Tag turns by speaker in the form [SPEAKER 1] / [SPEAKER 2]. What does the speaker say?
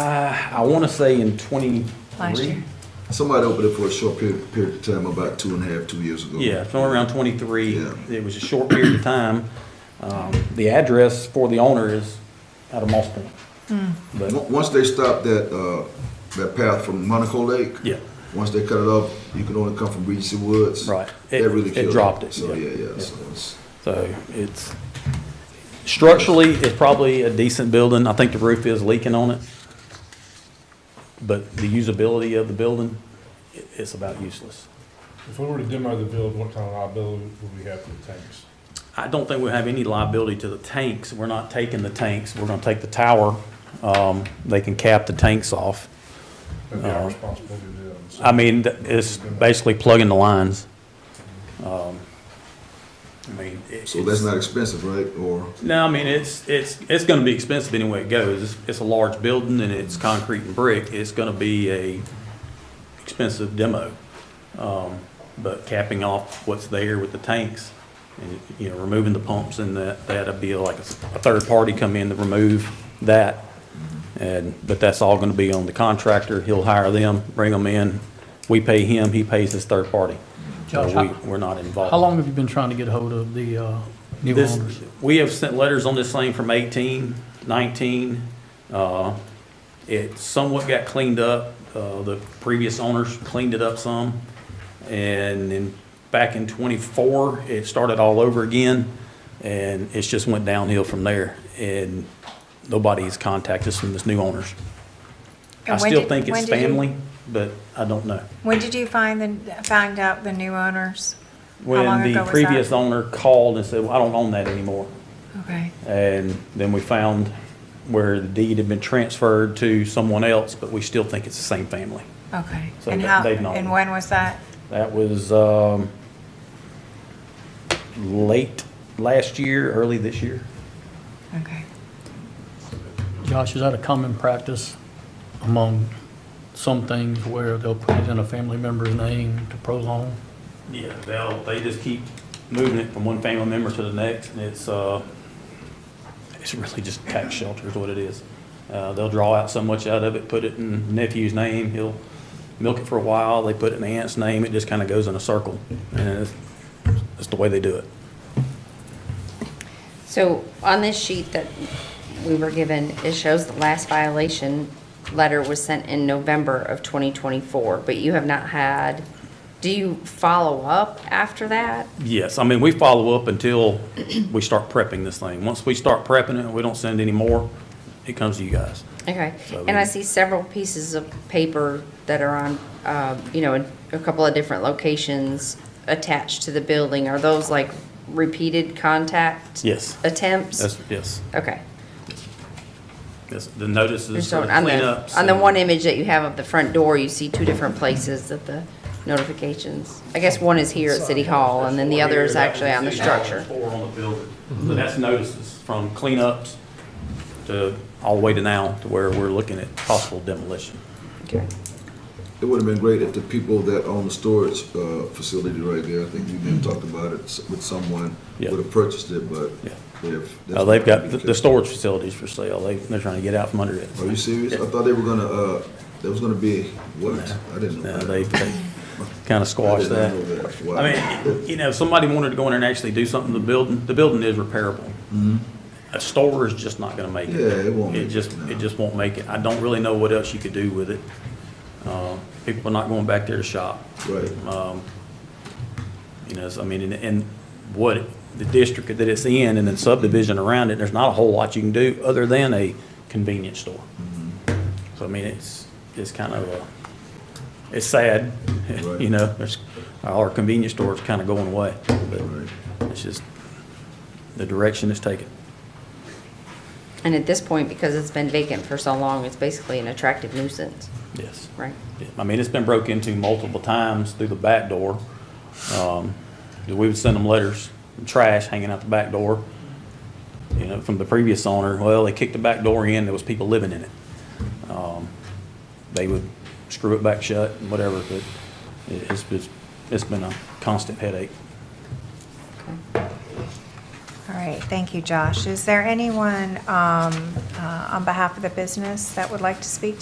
[SPEAKER 1] Uh, I want to say in
[SPEAKER 2] Last year.
[SPEAKER 1] twenty-three.
[SPEAKER 3] Somebody opened it for a short period, period of time about two and a half, two years ago.
[SPEAKER 1] Yeah, somewhere around twenty-three.
[SPEAKER 3] Yeah.
[SPEAKER 1] It was a short period of time. Um, the address for the owner is out of Moss Point.
[SPEAKER 2] Hmm.
[SPEAKER 1] But,
[SPEAKER 3] On- Once they stop that, uh, that path from Monaco Lake.
[SPEAKER 1] yeah,
[SPEAKER 3] Once they cut it off, you can only come from Regency Woods.
[SPEAKER 1] right. It,
[SPEAKER 3] That really
[SPEAKER 1] it
[SPEAKER 3] killed
[SPEAKER 1] dropped it.
[SPEAKER 3] So, yeah, yeah,
[SPEAKER 1] yeah.
[SPEAKER 3] so it's,
[SPEAKER 1] So it's, structurally, it's probably a decent building. I think the roof is leaking on it. But the usability of the building, i it's about useless.
[SPEAKER 4] If we were to demo the build, what kind of liability would we have for the tanks?
[SPEAKER 1] I don't think we have any liability to the tanks. We're not taking the tanks. We're gonna take the tower. Um, they can cap the tanks off.
[SPEAKER 4] That'd be our
[SPEAKER 1] Uh,
[SPEAKER 4] responsibility to do that.
[SPEAKER 1] I mean, th- it's basically plugging the lines. Um, I mean, it-
[SPEAKER 3] so that's
[SPEAKER 1] it's-
[SPEAKER 3] not expensive, right? Or,
[SPEAKER 1] No, I mean, it's, it's, it's gonna be expensive anyway it goes. It's, it's a large building and it's concrete and brick. It's gonna be a expensive demo. Um, but capping off what's there with the tanks and, you know, removing the pumps and that, that'd be like a, s- a third party come in to remove that. And, but that's all gonna be on the contractor. He'll hire them, bring them in. We pay him, he pays his third party. So
[SPEAKER 5] Josh, how-
[SPEAKER 1] we, we're not involved.
[SPEAKER 5] How long have you been trying to get hold of the uh, new
[SPEAKER 1] This,
[SPEAKER 5] owners?
[SPEAKER 1] we have sent letters on this thing from 18, 19. uh, It somewhat got cleaned up. uh, The previous owners cleaned it up some. And then back in 24, it started all over again. And it's just went downhill from there. And nobody's contacted us from this new owners. I
[SPEAKER 2] And when
[SPEAKER 1] still
[SPEAKER 2] did-
[SPEAKER 1] think
[SPEAKER 2] when
[SPEAKER 1] it's
[SPEAKER 2] did you-
[SPEAKER 1] family, but I don't know.
[SPEAKER 2] When did you find the, find out the new owners? long
[SPEAKER 1] When
[SPEAKER 2] ago
[SPEAKER 1] the
[SPEAKER 2] was that?
[SPEAKER 1] previous owner called and said, well, I don't own that anymore.
[SPEAKER 2] Okay.
[SPEAKER 1] And then we found where the deed had been transferred to someone else, but we still think it's the same family.
[SPEAKER 2] Okay.
[SPEAKER 1] So
[SPEAKER 2] And
[SPEAKER 1] they-
[SPEAKER 2] how,
[SPEAKER 1] they've known.
[SPEAKER 2] and when was that?
[SPEAKER 1] That was, um, late last year, early this year.
[SPEAKER 2] Okay.
[SPEAKER 5] Josh, is that a common practice among some things where they'll put it in a family member's name to prolong?
[SPEAKER 1] Yeah, they'll, they just keep moving it from one family member to the next, and it's, uh, it's really just tax shelter is what it is. Uh, they'll draw out so much out of it, put it in nephew's name, he'll milk it for a while, they put it in the aunt's name, it just kind of goes in a circle. And it's, it's the way they do it.
[SPEAKER 6] So on this sheet that we were given, it shows the last violation letter was sent in November of 2024, but you have not had, do you follow up after that?
[SPEAKER 1] Yes, I mean, we follow up until we start prepping this thing. Once we start prepping it, we don't send any more, it comes to you guys.
[SPEAKER 6] Okay,
[SPEAKER 1] So
[SPEAKER 6] and I
[SPEAKER 1] we-
[SPEAKER 6] see several pieces of paper that are on, uh, you know, in a couple of different locations attached to the building. Are those like repeated contact?
[SPEAKER 1] Yes.
[SPEAKER 6] Attempts?
[SPEAKER 1] That's, yes,
[SPEAKER 6] Okay.
[SPEAKER 1] yes, the notices
[SPEAKER 6] Just
[SPEAKER 1] for
[SPEAKER 6] on
[SPEAKER 1] the
[SPEAKER 6] on the,
[SPEAKER 1] cleanups.
[SPEAKER 6] on the
[SPEAKER 1] and-
[SPEAKER 6] one image that you have of the front door, you see two different places that the notifications, I guess one is here at City Hall, and then the other is actually on the structure.
[SPEAKER 1] Four on the building, so that's notices from cleanups to, all the way to now, to where we're looking at possible demolition.
[SPEAKER 6] Okay.
[SPEAKER 3] it would have been great if the people that own the storage, uh, facility right there, I think you even talked about it s- with someone,
[SPEAKER 1] Yeah.
[SPEAKER 3] would have purchased it, but
[SPEAKER 1] Yeah.
[SPEAKER 3] they've.
[SPEAKER 1] Uh, They've got, the- the storage facilities for sale, they, they're trying to get out from under it.
[SPEAKER 3] Are you serious? I
[SPEAKER 1] Yeah.
[SPEAKER 3] thought they were gonna, uh, there was gonna be, what? I didn't know.
[SPEAKER 1] No,
[SPEAKER 3] that.
[SPEAKER 1] they, they kind of
[SPEAKER 3] I
[SPEAKER 1] squashed
[SPEAKER 3] did
[SPEAKER 1] that.
[SPEAKER 3] not know that. Wow.
[SPEAKER 1] I mean, you know, if somebody wanted to go in there and actually do something to the building, the building is repairable. A store is just not gonna make it.
[SPEAKER 3] Mm-hmm. Yeah, it won't make it,
[SPEAKER 1] just,
[SPEAKER 3] no.
[SPEAKER 1] it just won't make it. I don't really know what else you could do with it. Uh, People are not going back there to shop.
[SPEAKER 3] Right.
[SPEAKER 1] Um, You know, so, I mean, and, and what, the district that it's in and the subdivision around it, there's not a whole lot you can do other than a convenience store.
[SPEAKER 3] Mm-hmm.
[SPEAKER 1] So, I mean, it's, it's kind of a, it's sad,
[SPEAKER 3] Right.
[SPEAKER 1] you know, there's, our convenience store's kind of going away,
[SPEAKER 3] Right.
[SPEAKER 1] but it's just the direction it's taken.
[SPEAKER 6] And at this point, because it's been vacant for so long, it's basically an attractive nuisance,
[SPEAKER 1] Yes.
[SPEAKER 6] right?
[SPEAKER 1] I mean, it's been broke into multiple times through the back door. Um, We would send them letters, trash hanging out the back door, you know, from the previous owner. Well, they kicked the back door in, there was people living in it. Um, They would screw it back shut and whatever, but it- it's, it's, it's been a constant headache.
[SPEAKER 6] Okay.
[SPEAKER 2] All right. Great, thank you, Josh. Is there anyone um, uh, on behalf of the business that would like to speak